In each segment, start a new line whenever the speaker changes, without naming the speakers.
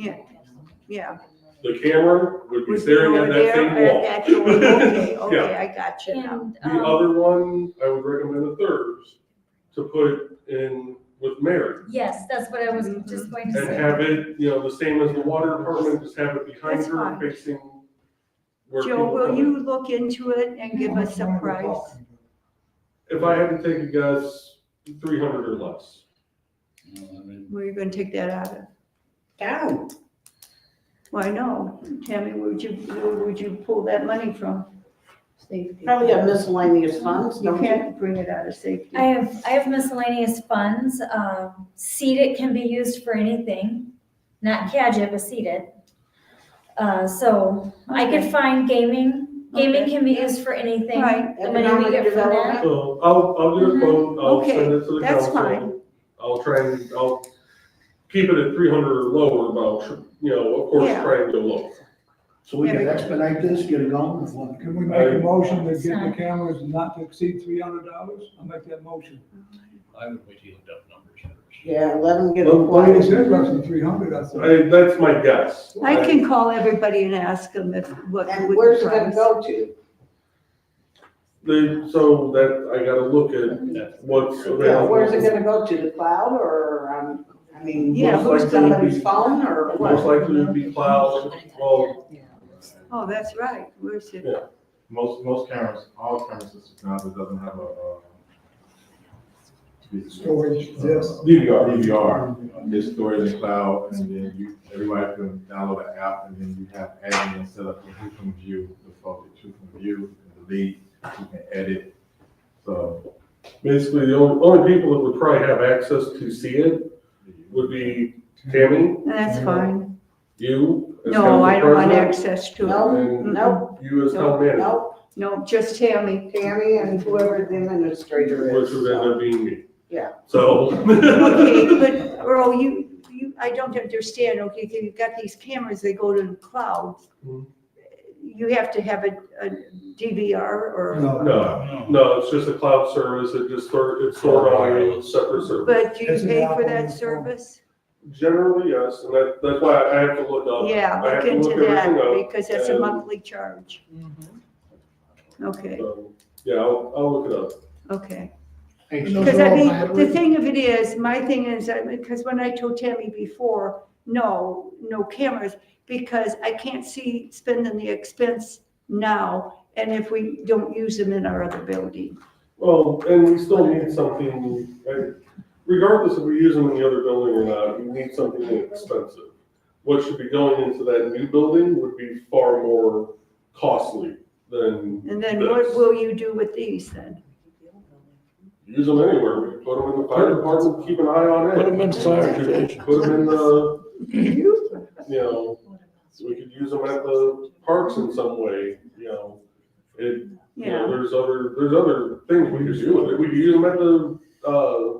Yeah, yeah.
The camera would be
Was
staring
over
at that
there,
same
uh, that you were- Okay,
wall. Yeah.
okay, I got you now.
And,
The
um,
other one, I would recommend the thirds to put in with Mary
yes, that's what I was just going to
and
say.
have it, you know, the same as the water department, just have it behind
That's
her
fine.
facing where people
Joe, will
come in.
you look into it and give us a price?
If I had to take a guess, three hundred or less.
Where you gonna take that out of?
Down.
Well, I know. Tammy, where'd you, where would you pull that money from? Safety.
Probably got miscellaneous funds,
You
don't you?
can't bring it out of safety.
I have, I have miscellaneous funds, um, seeded can be used for anything, not CAGIT, but seeded. Uh, so I could find gaming, gaming
Okay.
can be used for anything.
Right.
The money we
Economic
get from that.
development.
So I'll, I'll do a
Mhm.
quote,
Mm-hmm.
I'll
Okay,
send it to the
that's
council.
fine.
I'll try and, I'll keep it at three hundred or lower, but I'll, tr- you know, of course,
Yeah.
try and go lower.
So we can expedite this, get it going with one.
Can we make a motion to get the cameras not to exceed three hundred dollars? I'll make that motion.
I would wait till you looked up numbers first.
Yeah, let them get
Well,
Well, it
acquired.
said roughly three hundred, I thought.
I, that's my guess.
I can call everybody and ask them if, what
And
would
where's
the
it gonna
price?
go to?
They- so that, I gotta look at
That's-
what's
Yeah, where's it
available.
gonna go to, the cloud or, um, I mean,
Yeah,
who's
most likely it'd
somebody's
be-
phone or
Most
what?
likely it'd be cloud, well,
Oh, that's right. Where's it?
Yeah.
Most, most cameras, all camera systems now that doesn't have a, um.
Storage, yes.
DVR,
Uh,
DVR, is storage in cloud, and then you, everybody can download an app, and then you have admin set up who can view the footage, who can view, and delete, who can edit. So,
basically, the only, only people that would probably have access to see it would be Tammy,
That's fine.
you. as
No,
council
I don't want
president,
access to it.
No,
And
Nope,
you as town manager,
nope,
No, just Tammy.
Tammy and whoever the administrator
which
is.
would end up being me.
Yeah.
So.
Okay, but Earl, you, you, I don't understand, okay, so you've got these cameras, they go to the cloud.
Mhm.
You have to have a, a DVR or,
No,
No, no, it's just a cloud service, it just store, it's stored on a separate server.
but do you
It's an
pay for
app on
that
the phone.
service?
Generally, yes, and that, that's why I have to look up.
Yeah,
I
look
have to
into
look everything up.
that, because that's a
and-
monthly charge. Okay,
So, Um, Yeah, I'll, I'll look it up.
okay.
Thanks.
Because I mean, the thing of it is, my thing is, I mean, because when I told Tammy before, no, no cameras, because I can't see spending the expense now, and if we don't use them in our other building.
Well, and we still need something, right, regardless if we use them in the other building or not, we need something inexpensive. What should be going into that new building would be far more costly than
And then what will you do with these then?
use them anywhere. We put them in the fire department, keep an eye on it. Put them in fire station. Put them in the, you know, we could use them at the parks in some way, you know. It, You know,
Yeah,
there's other, there's other things we could do with it. We could use them at the, uh,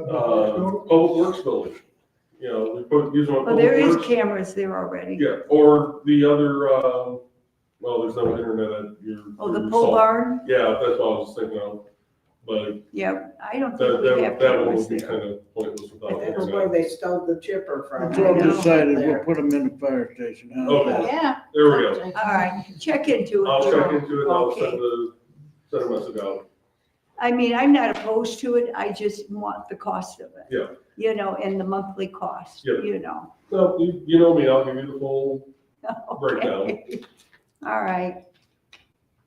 uh, Public Works Building. You know, we put, use them at
well, there
Public
is
Works.
cameras there already.
Yeah, or the other, um, well, there's no internet at your.
Oh,
your
the pole
salt.
barn?
Yeah, that's what I was thinking of. But
Yeah, I don't
that,
think we
that,
have
that one
cameras
would be
there.
kind of pointless without
That's where
internet.
they stole the chipper from.
Joe
decided we'll
There.
put them in the fire station. How's
Okay.
that?
Yeah,
There we go.
all right, check into it.
I'll check
Earl.
into it. and I'll
Okay.
send the, send a message out.
I mean, I'm not opposed to it, I just want the cost of it.
Yeah.
You know, and the monthly cost,
Yeah.
you know.
No, you, you know me, I'll give you the full breakdown.
Okay. All right.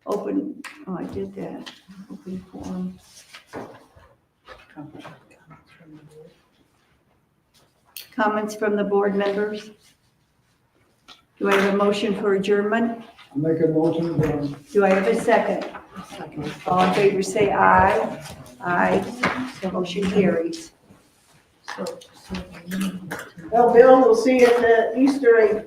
Open, oh, I did that, open forum. Comments from the board members? Do I have a motion for adjournment?
Make a motion, um,
Do I have a second? All in favor, say aye. Aye, motion carries.
Well, Bill, we'll see you at the Easter egg